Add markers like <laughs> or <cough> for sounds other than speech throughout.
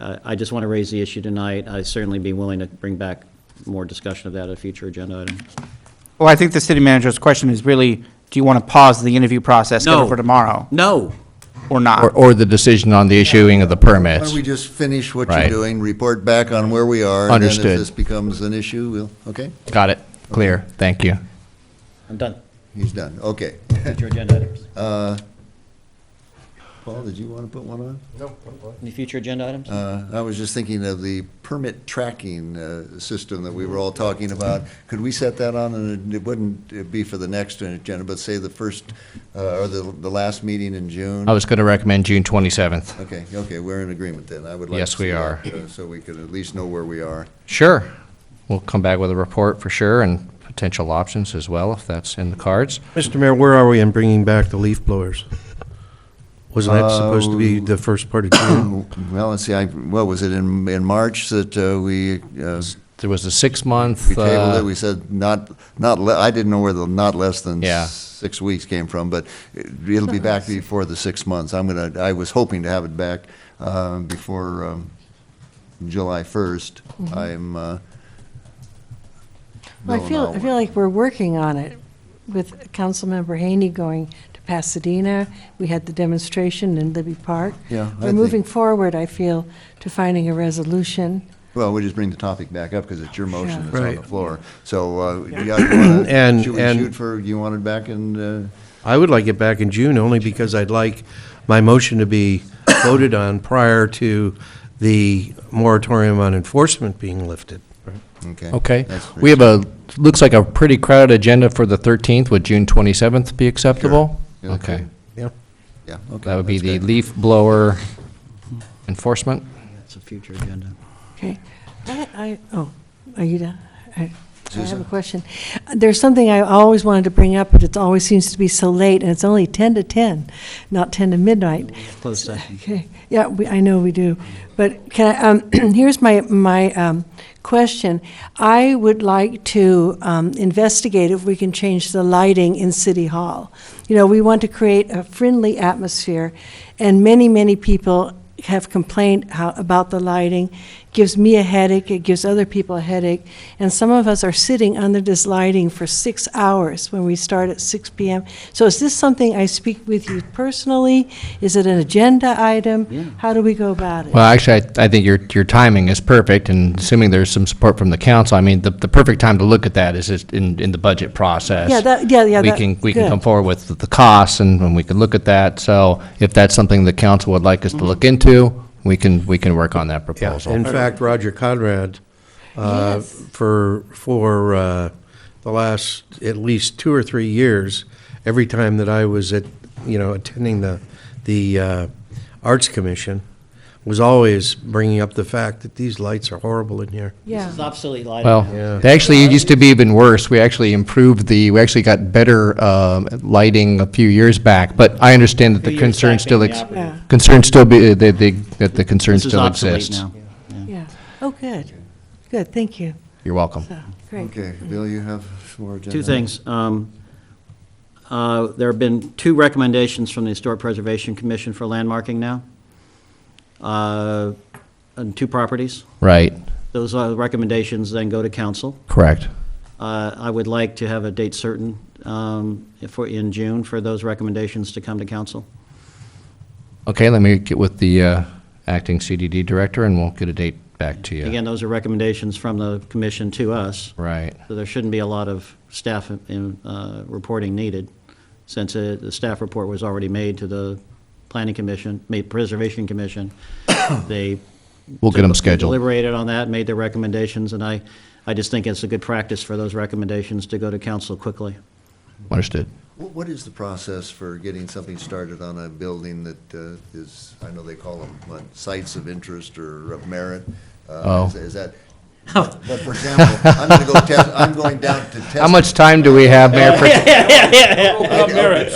I I just want to raise the issue tonight. I'd certainly be willing to bring back more discussion of that at a future agenda item. Well, I think the city manager's question is really, do you want to pause the interview process, get No. it for tomorrow, No, or Or, not? or the decision on the issuing of the Why permits. don't we just finish what you're Right. doing, report back on where we are? And then Understood. if this becomes an issue, we'll, okay? Got it. Clear. Thank you. I'm done. He's done, okay. Future agenda items. Paul, did you want to put one on? Any future agenda items? Uh, I was just thinking of the permit tracking uh, system that we were all talking about. Could we set that on, and it wouldn't uh, be for the next agenda, but say the first, uh, or the, the last meeting in June? I was going to recommend June 27th. Okay, okay, we're in agreement then. I would like to Yes, we see that, are. uh, So we could at least know where we are. Sure. We'll come back with a report for sure and potential options as well, if that's in the cards. Mr. Mayor, where are we in bringing back the leaf blowers? Wasn't that supposed to be the first part of June? Oh, Well, let's see, I, what was it, in, in March that uh, we uh, There was a We six-month, tabled it, uh, we said not, not, le- I didn't know where the not less than Yeah. six weeks came from, but it- it'll be back before the six months. I'm gonna, I was hoping to have it back uh, before um, July 1st. I'm, uh, Mm-hmm. Well, I no, feel, no. I feel like we're working on it with Councilmember Haney going to Pasadena. We had the demonstration in Libby Park. Yeah, I We're think- moving forward, I feel, to finding a resolution. well, we just bring the topic back up because it's your motion Yeah. that's on the Right. floor. So, uh, yeah, <clears throat> you wanna- And- should we and- shoot for, you want it back in, uh, I would like it back in June, only because I'd like my motion to be voted on prior to the moratorium on enforcement being lifted. okay? okay. That's pretty- We have a, looks like a pretty crowded agenda for the 13th. Would June 27th be acceptable? Yeah, Okay. Yeah. Yeah, okay. That would be that's the good. leaf blower enforcement. That's a future agenda. Okay. I, I, oh, are you done? I I have Susan? a question. There's something I always wanted to bring up, but it always seems to be so late, and it's only 10 to 10, not 10 to midnight. Closed session. Okay, yeah, we, I know we do, but can I, um, <clears throat> here's my, my, um, question. I would like to, um, investigate if we can change the lighting in City Hall. You know, we want to create a friendly atmosphere, and many, many people have complained how, about the lighting. Gives me a headache, it gives other people a headache, and some of us are sitting under this lighting for six hours when we start at six PM. So is this something I speak with you personally? Is it an agenda item? Yeah. How do we go about it? Well, actually, I, I think your, your timing is perfect, and assuming there's some support from the council, I mean, the, the perfect time to look at that is just in, in the budget process. Yeah, that- yeah, yeah, We that- can, we can good. come forward with the costs, and, and we can look at that, so if that's something the council would like us to look into, we can, we can work on that Yeah, proposal. in fact, Roger Conrad, uh, Yes. for, for uh, the last at least two or three years, every time that I was at, you know, attending the, the uh, Arts Commission, was always bringing up the fact that these lights are horrible in here. This <laughs> Yeah, is obsolete lighting. Well, they actually, it used to be even worse. We actually improved the, we actually got better um, lighting a few years back, but I understand that Two the years concern back still, being the ex- operative. Yeah. concern still be, that the, that the concern This is still obsolete exists. now. yeah. Oh, good, good, thank you. You're welcome. So, Great. Okay, Bill, you have some more agenda? Two things. Um, uh, There have been two recommendations from the Historic Preservation Commission for landmarking now, uh, on two properties. Right, Those uh, recommendations then go to council. correct. Uh, I would like to have a date certain um, for, in June, for those recommendations to come to council. Okay, let me get with the uh, acting CDD director, and we'll get a date back to you. Again, those are recommendations from the commission to us, Right, so there shouldn't be a lot of staff in, uh, reporting needed, since uh, the staff report was already made to the planning commission, made preservation <coughs> commission. They we'll get them They scheduled. Deliberated on that, made their recommendations, and I, I just think it's a good practice for those recommendations to go to council quickly. Understood. Wh- What is the process for getting something started on a building that uh, is, I know they call them what, sites of interest or of merit? Uh, Oh. is- Is that, but for example, I'm going to go test, I'm going down to test. How much time do we have, Mayor? Pro-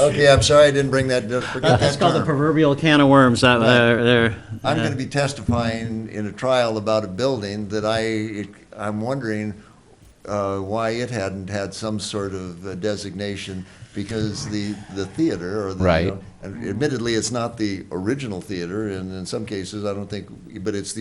Okay, I'm sorry, I didn't bring that, forget It's that called the term. proverbial can of worms, that, uh, there. I'm going to be testifying in a trial about a building that I, I'm wondering uh, why it hadn't had some sort of uh, designation, because the, the theater or the. you Right. know, and Admittedly, it's not the original theater, and in some cases, I don't think, but it's the